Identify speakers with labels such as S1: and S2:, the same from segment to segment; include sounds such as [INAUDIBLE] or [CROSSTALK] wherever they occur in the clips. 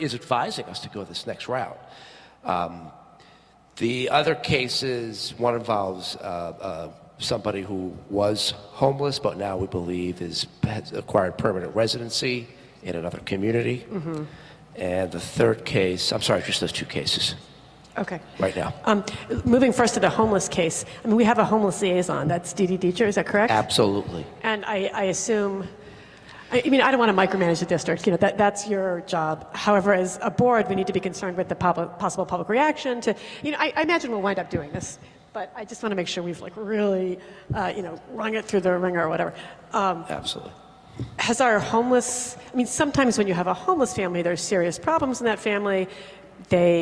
S1: is advising us to go this next route. Um, The other cases, one involves uh, uh, somebody who was homeless, but now we believe is, has acquired permanent residency in another community.
S2: Mm-hmm.
S1: And the third case, I'm sorry, just those two cases
S2: Okay.
S1: right now.
S2: Um, Moving first to the homeless case, I mean, we have a homeless liaison, that's Dee Dee Deacher, is that correct?
S1: Absolutely.
S2: And I I assume, I I mean, I don't want to micromanage the district, you know, that that's your job. However, as a board, we need to be concerned with the pub- possible public reaction to, you know, I I imagine we'll wind up doing this, but I just want to make sure we've like really, uh, you know, rung it through the ringer or whatever. Um,
S1: Absolutely.
S2: has our homeless i mean sometimes when you have a homeless family there's serious problems in that family they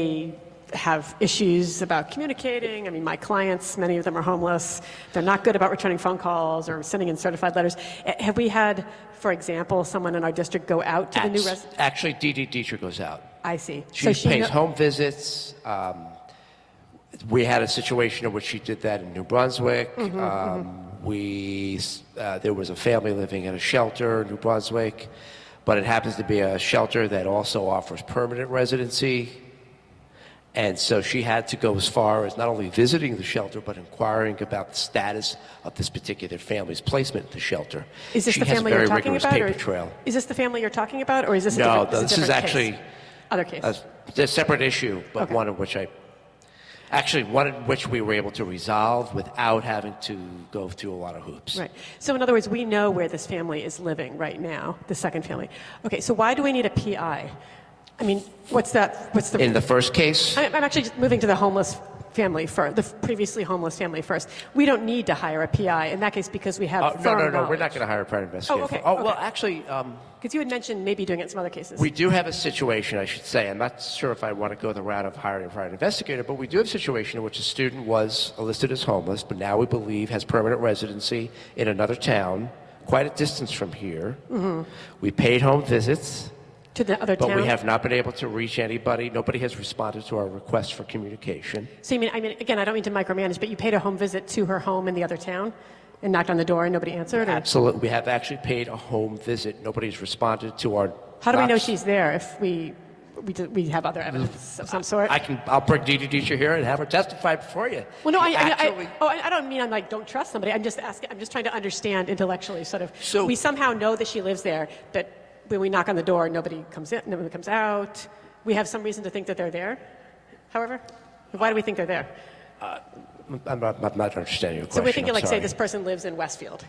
S2: have issues about communicating i mean my clients many of them are homeless they're not good about returning phone calls or sending in certified letters Eh, have we had for example someone in our district go out to the new resident
S1: Actually, Dee Dee Dietrich goes out.
S2: i see
S1: She pays
S2: kno-
S1: home visits. Um, we had a situation in which she did that in New Brunswick.
S2: Mm-hmm,
S1: um, We uh, there was a family living in a shelter in New Brunswick, but it happens to be a shelter that also offers permanent residency. And so she had to go as far as not only visiting the shelter, but inquiring about the status of this particular family's placement in the shelter.
S2: is this
S1: she
S2: the
S1: has
S2: family
S1: a very
S2: you're talking
S1: rigorous
S2: about
S1: paper
S2: or
S1: trail.
S2: is this the family you're talking about or is this a
S1: No,
S2: different, a
S1: this is
S2: different
S1: actually
S2: case? other case
S1: a, a separate issue, but
S2: Okay.
S1: one of which I actually one in which we were able to resolve without having to go through a lot of hoops.
S2: Right. So in other words, we know where this family is living right now, the second family. Okay, so why do we need a PI? I mean, what's that, what's the,
S1: In the first case,
S2: I- I'm actually just moving to the homeless family first, the previously homeless family first. We don't need to hire a PI in that case because we have
S1: oh, no,
S2: firm
S1: no, no, we're not going to hire a private investigator.
S2: okay,
S1: oh well,
S2: okay.
S1: actually, um,
S2: Because you had mentioned maybe doing it in some other cases.
S1: we do have a situation. I should say, I'm not sure if I want to go the route of hiring a private investigator, but we do have a situation in which a student was listed as homeless, but now we believe has permanent residency in another town, quite a distance from here.
S2: Mm-hmm.
S1: We paid home visits.
S2: to the other
S1: But
S2: town.
S1: we have not been able to reach anybody. Nobody has responded to our request for communication.
S2: so you mean, I mean, again, I don't mean to micromanage, but you paid a home visit to her home in the other town and knocked on the door and nobody answered? Or
S1: Absolutely, we have actually paid a home visit. Nobody's responded to our.
S2: how do we know
S1: knocks.
S2: she's there if we, we, do, we have other evidence of some sort?
S1: I can. I'll bring Dee Dee Deacher here and have her testify before you.
S2: Well, no, I,
S1: She
S2: I,
S1: actually-
S2: I, oh, I I don't mean I'm like, don't trust somebody. I'm just asking, I'm just trying to understand intellectually, sort of.
S1: So-
S2: we somehow know that she lives there, but when we knock on the door, nobody comes in, nobody comes out. We have some reason to think that they're there, however. Why do we think they're there?
S1: I'm not, I'm not understanding your question.
S2: So we're thinking,
S1: I'm
S2: like, say,
S1: sorry.
S2: this person lives in Westfield.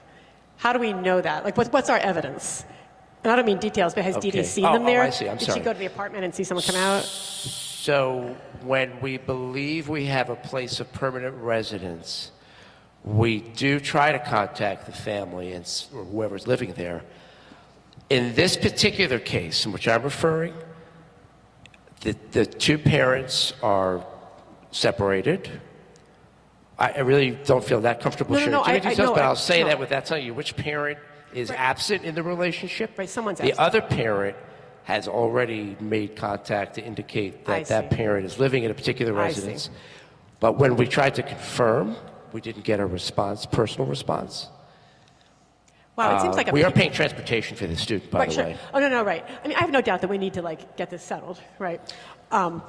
S2: How do we know that? Like, what, what's our evidence? And I don't mean details, but has Dee Dee
S1: Okay.
S2: seen
S1: Oh,
S2: them
S1: oh,
S2: there?
S1: I see. I'm
S2: Did
S1: sorry.
S2: she go to the apartment and see someone come out?
S1: So when we believe we have a place of permanent residence, we do try to contact the family and s- or whoever's living there. In this particular case, in which I'm referring, the, the two parents are separated. I, I really don't feel that comfortable
S2: No, no,
S1: sharing
S2: no,
S1: too many
S2: I- I-
S1: details,
S2: no,
S1: but
S2: I-
S1: I'll say
S2: no.
S1: that without telling you which parent is absent in the relationship.
S2: Right, someone's
S1: The
S2: absent.
S1: other parent has already made contact to indicate
S2: I
S1: that that
S2: see.
S1: parent is living in a particular
S2: I see.
S1: residence. But when we tried to confirm, we didn't get a response, personal response.
S2: Wow, it
S1: Uh,
S2: seems like a
S1: we are
S2: pe-
S1: paying transportation for the student, by
S2: Right,
S1: the
S2: sure.
S1: way.
S2: Oh, no, no, right. I mean, I have no doubt that we need to, like, get this settled, right? Um,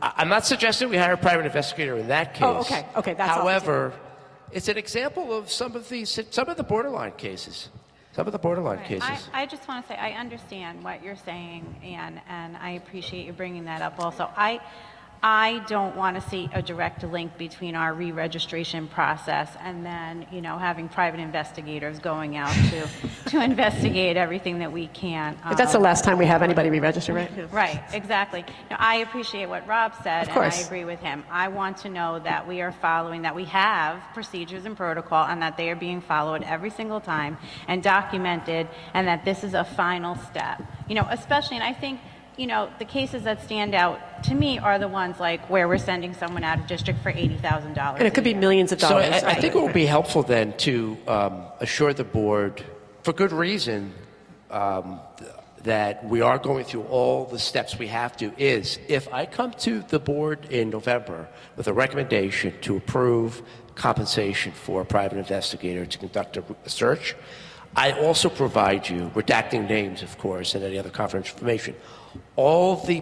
S1: I- I'm not suggesting we hire a private investigator in that case.
S2: Oh, okay, okay, that's all.
S1: However, it's an example of some of these, some of the borderline cases, some of the borderline
S3: Right.
S1: cases.
S3: I, I just want to say, I understand what you're saying, Anne, and I appreciate you bringing that up also. I, I don't want to see a direct link between our re-registration process and then, you know, having private investigators going out to, [LAUGHS] to investigate everything that we can.
S2: But that's the
S3: um,
S2: last time we have anybody re-register, right?
S3: Right, exactly. Now, I appreciate what Rob said.
S2: Of course.
S3: And I agree with him. I want to know that we are following, that we have procedures and protocol, and that they are being followed every single time and documented, and that this is a final step. You know, especially, and I think, you know, the cases that stand out to me are the ones like where we're sending someone out of district for $80,000.
S2: And it could be millions of
S1: So
S2: dollars.
S1: I, I think it would be helpful then to um, assure the board, for good reason, um, th- that we are going through all the steps we have to. Is if I come to the board in November with a recommendation to approve compensation for a private investigator to conduct a a search, I also provide you, redacting names, of course, and any other confidential information, all the